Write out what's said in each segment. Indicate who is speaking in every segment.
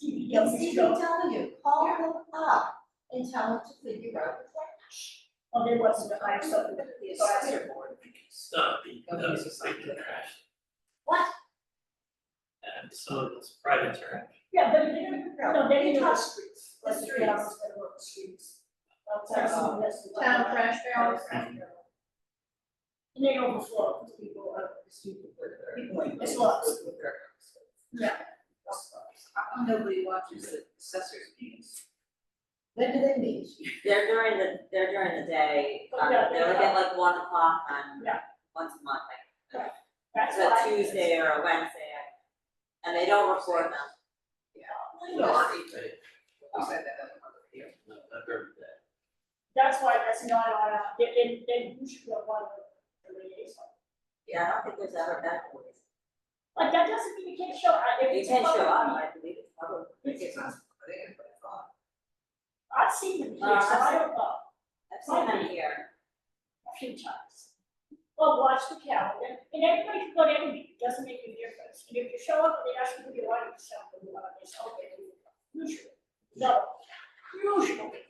Speaker 1: They'll CPW, call them up and tell them to figure out the trash.
Speaker 2: Well, they want to hire something that the advisor board.
Speaker 3: Stop because it's like the trash
Speaker 1: What?
Speaker 3: and so it's private trash.
Speaker 2: Yeah, but if they're, no, they need to touch streets,
Speaker 1: The
Speaker 2: the streets,
Speaker 1: streets.
Speaker 2: they work the streets. Outside some of this.
Speaker 4: Town trash barrels.
Speaker 2: And they overflow, because people are stupid, it's lots. Yeah.
Speaker 4: Nobody watches the assessors meetings.
Speaker 1: When do they meet?
Speaker 5: They're during the, they're during the day, um,
Speaker 2: Oh, Yeah,
Speaker 5: they're
Speaker 2: yeah.
Speaker 5: like at like one o'clock on,
Speaker 2: Yeah.
Speaker 5: once a month, like,
Speaker 2: That's
Speaker 5: it's a
Speaker 2: why.
Speaker 5: Tuesday or a Wednesday. And they don't record them,
Speaker 2: No,
Speaker 4: You said that on the video.
Speaker 3: No, I've heard that.
Speaker 2: That's why that's not on, a- they, they, they usually have one of the liaison.
Speaker 5: yeah, I don't think there's ever been a police.
Speaker 2: But that doesn't mean you can't show, I, if
Speaker 5: You
Speaker 2: it's. a
Speaker 5: can show
Speaker 2: public
Speaker 5: up,
Speaker 2: meeting,
Speaker 5: I believe it's public.
Speaker 4: It's not, they didn't put it on.
Speaker 2: I've seen them here,
Speaker 5: Uh,
Speaker 2: so I don't know,
Speaker 5: I've seen them here,
Speaker 2: a few times. Well, watch the calendar, and everybody can go to any meeting, it doesn't make any difference, and if you show up, and they ask you who you want, you show up, and you want to, say, okay, you come." usually, no, usually.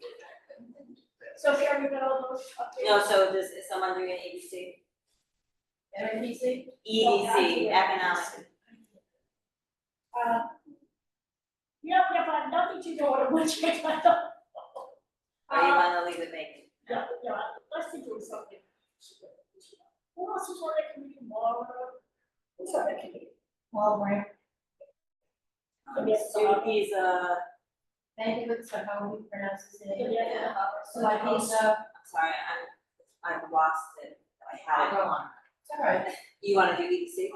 Speaker 2: So Sharon, you got all those updates?
Speaker 5: no, so does, is someone doing an EDC?
Speaker 2: Oh,
Speaker 1: NRPC?
Speaker 5: E EDC, economic,
Speaker 2: Uh, Yep, yep, I have nothing to do with which I thought.
Speaker 5: or you wanna leave it vacant?
Speaker 2: Yeah, yeah, let's think of something. Who else is on that committee tomorrow? Who's on that committee?
Speaker 1: Walmart,
Speaker 2: Um, yes,
Speaker 5: So he's uh,
Speaker 1: thank you, so how we pronounce his name.
Speaker 2: Yeah.
Speaker 1: So I think, uh,
Speaker 5: I'm sorry, I'm, I've lost it, I had it on.
Speaker 1: it's all right.
Speaker 5: You wanna do E EDC?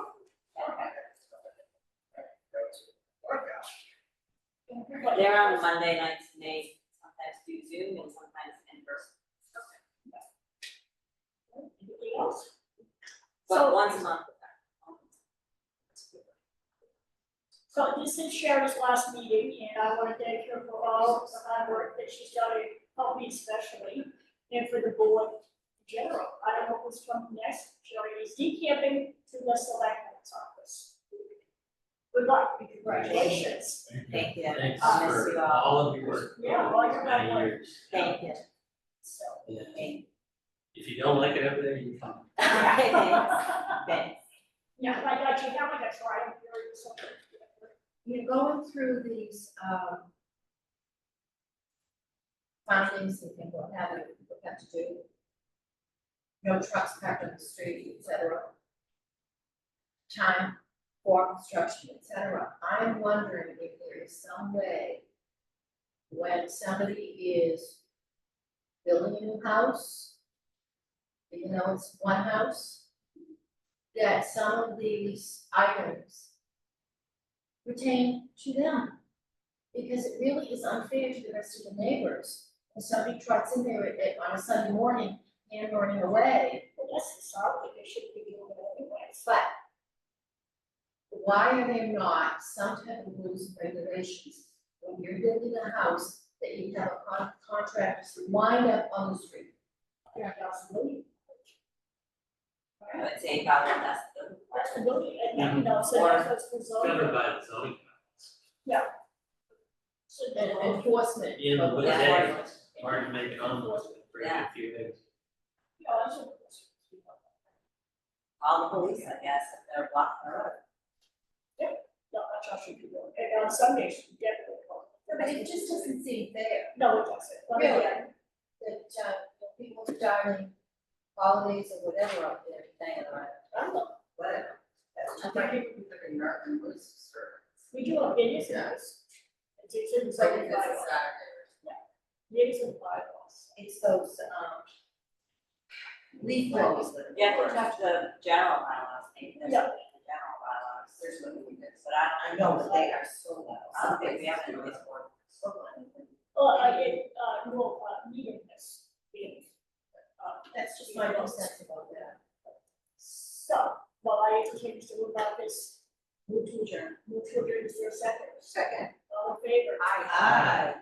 Speaker 5: They're on Monday nights, and they sometimes do Zoom and sometimes in person,
Speaker 2: Anything else?
Speaker 5: but
Speaker 2: So-
Speaker 5: once a month.
Speaker 2: So this is Sherry's last meeting, and I want to thank her for all of the hard work that she's done, and help me especially, and for the board in general. I don't know who's coming next, Sherry is decamping to the selectmen's office. Good luck, and congratulations.
Speaker 5: Thank you,
Speaker 3: Thanks
Speaker 5: I'll miss you
Speaker 3: for
Speaker 5: all,
Speaker 3: all of your work.
Speaker 2: Yeah, all your
Speaker 3: Many
Speaker 2: hard work.
Speaker 3: years.
Speaker 5: thank you,
Speaker 2: So.
Speaker 3: Yeah.
Speaker 5: thank you.
Speaker 3: If you don't like it over there, you can.
Speaker 5: Okay, thanks, thanks.
Speaker 2: Yeah, I got you, now I got to try and hear you something.
Speaker 1: You're going through these, um, findings and things what have you, what have to do. No trucks parked on the street, et cetera. Time for construction, et cetera. I'm wondering if there is some way when somebody is building a new house, even though it's one house, that some of these items pertain to them. Because it really is unfair to the rest of the neighbors. If somebody trots in there at- at- on a Sunday morning, and running away,
Speaker 2: Well, that's the sound that they should be doing anyways.
Speaker 1: but why are there not some type of rules and regulations when you're building a house that you have a con- contractor to wind up on the street?
Speaker 2: Yeah, that's the million.
Speaker 5: I would say probably that's the,
Speaker 2: That's the million, and then, you know, so that's what's the
Speaker 3: It's
Speaker 2: zone.
Speaker 3: covered by the zoning. bylaws.
Speaker 2: So
Speaker 1: And
Speaker 2: then, and
Speaker 1: enforcement.
Speaker 3: At the end of the
Speaker 1: of
Speaker 5: Yeah.
Speaker 3: day,
Speaker 1: law.
Speaker 3: it's hard to make it on those, for a
Speaker 5: Yeah.
Speaker 3: few days.
Speaker 2: you know, I should-
Speaker 5: all the police, I guess, if they're blocking the road.
Speaker 2: No, I trust you people, and on Sundays, you definitely. call.
Speaker 1: But it just doesn't seem fair.
Speaker 2: No, it doesn't. Let me-
Speaker 1: Really? that uh you know, people starting holidays or whatever up there, dang it, right?
Speaker 2: I don't know,
Speaker 4: Whatever. That's just like people who live in Northern Woods, or.
Speaker 2: we do have business
Speaker 4: Yeah.
Speaker 2: hours. It's in the
Speaker 4: It's like
Speaker 2: zoning
Speaker 4: it's a Saturday.
Speaker 2: bylaws, it is in the bylaws.
Speaker 1: It's those um leaf blowers.
Speaker 5: You have to touch the general bylaws, maybe there's
Speaker 2: Yeah.
Speaker 5: something in the general bylaws,
Speaker 4: There's no weakness.
Speaker 5: but I
Speaker 4: I
Speaker 5: don't, I
Speaker 4: know,
Speaker 5: don't
Speaker 4: but they are so loud.
Speaker 5: I don't think we have any police board.
Speaker 4: So loud.
Speaker 2: Well, I did, uh, no, uh, meeting this, being, uh,
Speaker 1: That's just my own sense about that.
Speaker 2: So, while I entertain to move about this, move to adjourn, move to adjourn is your second,
Speaker 4: Second.
Speaker 2: all in favor?
Speaker 4: Aye.
Speaker 5: Aye.